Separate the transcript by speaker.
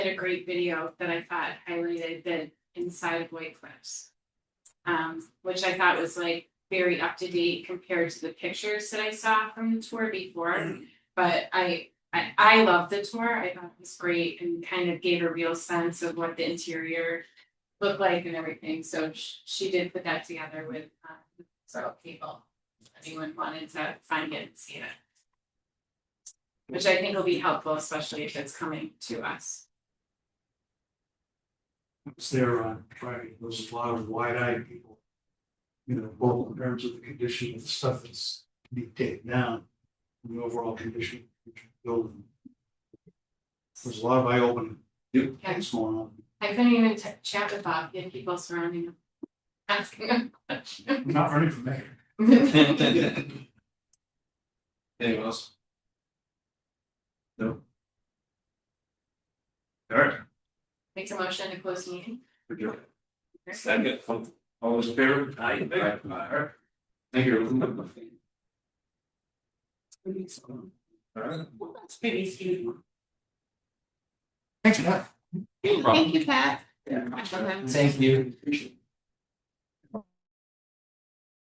Speaker 1: did a great video that I thought highlighted the inside of White Cliffs. Um, which I thought was like very up to date compared to the pictures that I saw from the tour before. But I, I, I loved the tour, I thought it was great and kind of gave a real sense of what the interior looked like and everything, so she, she did put that together with, um, several people. if Anyone wanted to find it and see it. Which I think will be helpful, especially if it's coming to us.
Speaker 2: was there on Friday, there was a lot of wide-eyed people. You know, both in terms of the condition of the stuff that's being taken down, and the overall condition of the building. There's a lot of eye-opening things going on.
Speaker 1: I couldn't even t- chat with Bob, he had people surrounding him. Asking him questions.
Speaker 2: I'm not running from that.
Speaker 3: Anyone else? No? Alright,
Speaker 1: Make a motion to close the meeting.
Speaker 3: we're good. Second, all all those in favor? Aye. Alright. Thank you. Alright.
Speaker 2: Thanks, Matt.
Speaker 1: Thank you, Pat.
Speaker 3: Yeah.
Speaker 1: Thank you.
Speaker 3: Thank you.